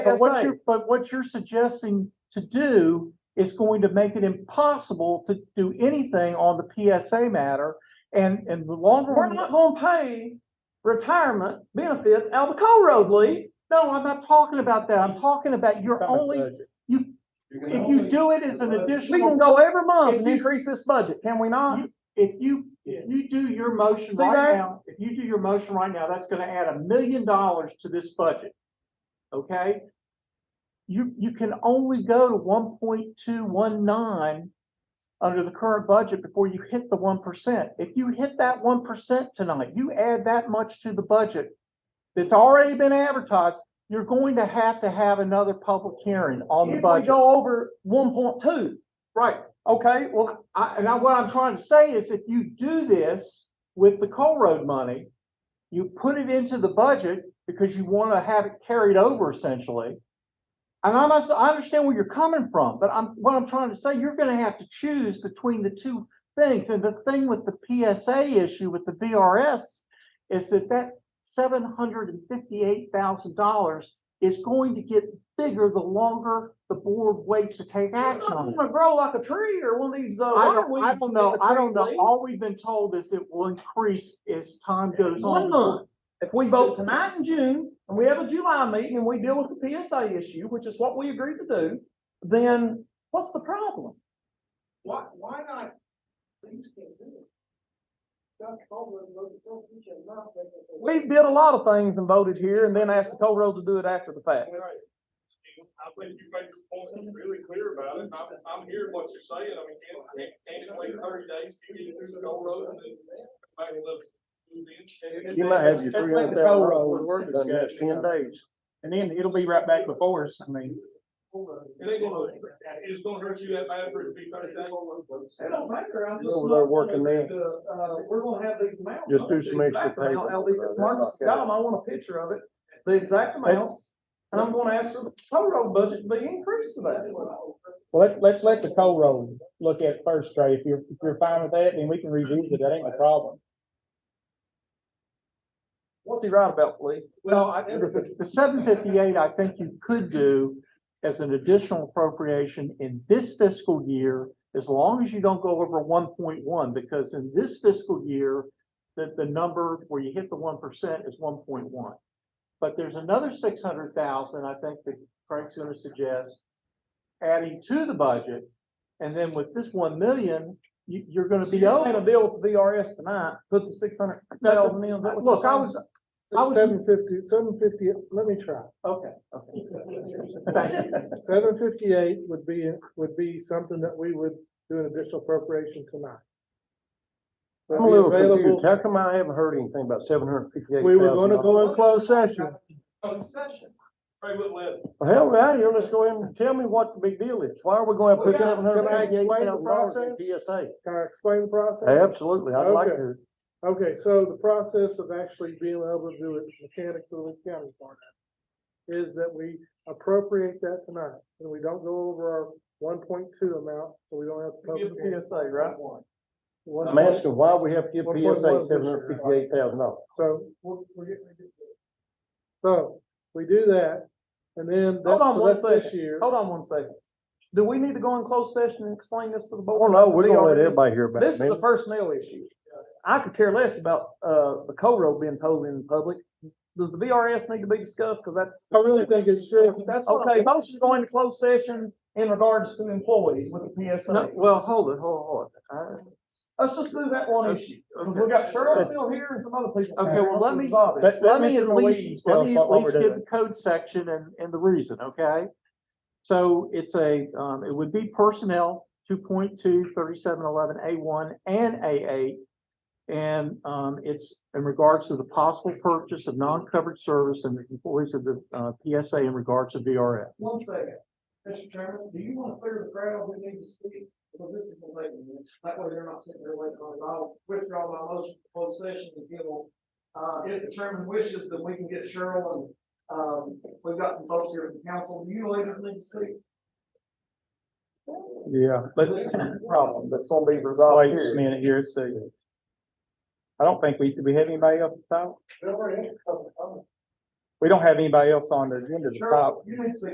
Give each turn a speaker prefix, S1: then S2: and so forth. S1: But what
S2: That's
S1: you're, but what you're suggesting to do is going to make it impossible to do anything on the PSA matter. And, and the longer.
S2: We're
S1: we-
S2: not gonna pay retirement benefits out of the coal road, Lee.
S1: No, I'm not talking about that. I'm talking about you're only, you, if you do it as an
S2: We can
S1: additional,
S2: go every month
S1: If
S2: and
S1: you-
S2: increase this budget, can we not?
S1: if you, if you do your motion
S2: See
S1: right
S2: that?
S1: now, if you do your motion right now, that's gonna add a million dollars to this budget. Okay? You, you can only go to one point two one nine under the current budget before you hit the one percent. If you hit that one percent tonight, you add that much to the budget that's already been advertised, you're going to have to have another public hearing on the
S2: If we
S1: budget.
S2: go over one point two,
S1: Right,
S2: okay, well,
S1: I, and I, what I'm trying to say is if you do this with the coal road money, you put it into the budget because you want to have it carried over essentially. And I must, I understand where you're coming from, but I'm, what I'm trying to say, you're going to have to choose between the two things. And the thing with the PSA issue with the VRS is that that seven hundred and fifty-eight thousand dollars is going to get bigger the longer the board waits to take
S2: I'm
S1: action on it.
S2: not gonna grow like a tree or one of these, uh.
S1: I
S2: water
S1: don't, I
S2: weeds
S1: don't know,
S2: in the
S1: I
S2: tree,
S1: don't know,
S2: Lee.
S1: all we've been told is it will increase as time goes
S3: Oh,
S2: One
S1: on.
S2: month, if we vote tonight in June, and we have a July meeting, and we deal with the PSA issue, which is what we agreed to do, then what's the problem?
S3: Why, why not? Things can do it. Doug Baldwin wrote a book, he should not make it.
S2: We did a lot of things and voted here, and then asked the toll road to do it after the fact.
S4: I think you made your point really clear about it, and I'm, I'm hearing what you're saying, I mean, can, can- can it wait thirty days to get it through the whole road and then back it up?
S5: You might have your
S2: Let's
S5: three hundred
S2: make the
S5: thousand
S2: toll road
S5: dollars worth of work done in
S2: discussion.
S5: ten days.
S2: And then it'll be right back before us, I mean.
S4: It ain't gonna, it's gonna hurt you that bad for it to be thirty days.
S3: It don't matter, I'm just.
S5: Over there working
S3: looking at
S5: there.
S3: the, Uh, we're gonna have these amounts.
S5: Just do some extra
S2: Exact amount,
S5: paperwork
S2: I'll leave
S5: about that,
S2: it- E, Marcus
S5: okay.
S2: got 'em, I want a picture of it, the exact amounts, and I'm gonna ask for the toll road budget to be increased to that.
S6: Well, let's, let's let the toll road look at it first, Trey. If you're, if you're fine with that, then we can revisit it. That ain't a problem.
S2: What's he right about, Lee?
S1: Well, I, the, the seven fifty-eight, I think you could do as an additional appropriation in this fiscal year, as long as you don't go over one point one, because in this fiscal year, that the number where you hit the one percent is one point one. But there's another six hundred thousand, I think that Craig's gonna suggest, adding to the budget. And then with this one million, you, you're gonna
S2: So
S1: be
S2: you're
S1: over.
S2: saying a deal with the VRS tonight, put the six hundred thousand in, is that what you're
S1: Look, I
S2: saying?
S1: was, I was-
S5: Seven fifty, seven fifty, let me try.
S1: okay, okay. Thank you.
S5: Seven fifty-eight would be, would be something that we would do an additional appropriation tonight.
S7: I'm a little confused. How come I haven't heard anything about seven hundred and fifty-eight thousand?
S5: We were gonna go in closed session.
S4: Ray wouldn't let it.
S7: Hell, we're out of here. Let's go ahead and tell me what the big deal is. Why are we gonna put
S5: Can I-
S7: seven hundred and fifty-eight
S5: can I
S7: thousand dollars
S5: explain
S7: in PSA?
S5: Can I explain the process?
S7: Absolutely. I'd like
S5: Okay.
S7: to.
S5: Okay, so the process of actually being able to do it, mechanics of the Lee County part of it, is that we appropriate that tonight, and we don't go over our one point two amount, so we don't have to.
S2: Give
S5: public hearing.
S2: the PSA, right?
S5: One
S7: I'm
S5: point-
S7: asking why we have to give
S5: One point
S7: PSA
S5: one this year.
S7: seven hundred and fifty-eight thousand dollars.
S5: So, we're, we're getting, we're getting. So, we do that, and then,
S2: Hold
S5: that's,
S2: on
S5: so
S2: one
S5: that's this
S2: second,
S5: year.
S2: hold on one second. Do we need to go in closed session and explain this to the
S7: Well,
S2: board?
S7: no, we're gonna let
S2: VRS?
S7: everybody hear about
S2: This
S7: it,
S2: is a
S7: man.
S2: personnel issue. I could care less about, uh, the co road being told in public. Does the VRS need to be discussed? Cause that's,
S5: I really think it's true, that's what
S2: okay, motion going to closed session in regards to employees with the
S1: No,
S2: PSA.
S1: well, hold it, hold it, hold it.
S2: Let's just do that
S5: Uh,
S2: one issue. Cause we got Cheryl still here and some other people.
S1: Okay, well, let me-
S2: Resolve it.
S7: Let-
S1: Let me
S7: Mr.
S1: at
S7: Malini's
S1: least,
S7: tell
S1: let
S7: us
S1: me
S7: what
S1: at
S7: we're
S1: least give
S7: doing.
S1: the code section and, and the reason, okay? So it's a, um, it would be personnel, two point two, thirty-seven eleven, A one and A eight. And, um, it's in regards to the possible purchase of non-covered service and the employees of the, uh, PSA in regards to VRF.
S3: One second, Mr. Chairman, do you wanna clear the crowd who needs to speak? Well, this is the late one, that way they're not sitting there waiting on us. I'll withdraw my motion for closed session to give them. Uh, if the chairman wishes, then we can get Cheryl and, um, we've got some folks here from council, do you ladies need to speak?
S7: Yeah.
S2: But this is the problem that's gonna be resolved
S6: Wait a
S2: here.
S6: minute here, see. I don't think we, do we have anybody else to talk?
S1: We don't have anybody else on the agenda to
S3: Sure,
S1: talk.
S3: you need to